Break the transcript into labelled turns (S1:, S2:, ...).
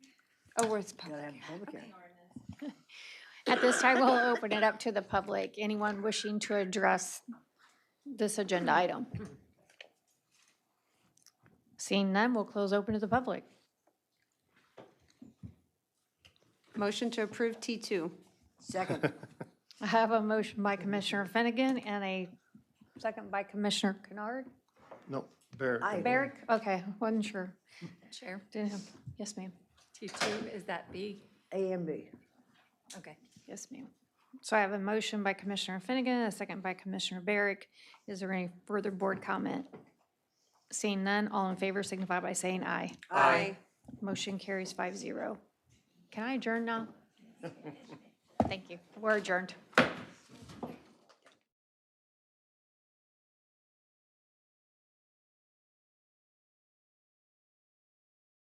S1: Oh, we're it's
S2: Gotta have
S1: public.
S2: a public hearing.
S1: At this time, we'll open it up to the public. Anyone wishing to address this agenda item? Seeing none, we'll close open to the public.
S3: Motion to approve T2.
S2: Second,
S1: I have a motion by Commissioner Finnegan and a second by Commissioner Kennard.
S4: No, Barrett.
S2: Aye.
S1: Barrick, okay, wasn't sure.
S5: Chair,
S1: Didn't- Yes, ma'am.
S5: T2, is that B?
S2: A and B.
S5: Okay.
S1: Yes, ma'am. So I have a motion by Commissioner Finnegan, a second by Commissioner Barrick. Is there any further board comment? Seeing none, all in favor signify by saying aye.
S5: Aye.
S1: Motion carries five zero. Can I adjourn now? Thank you. We're adjourned.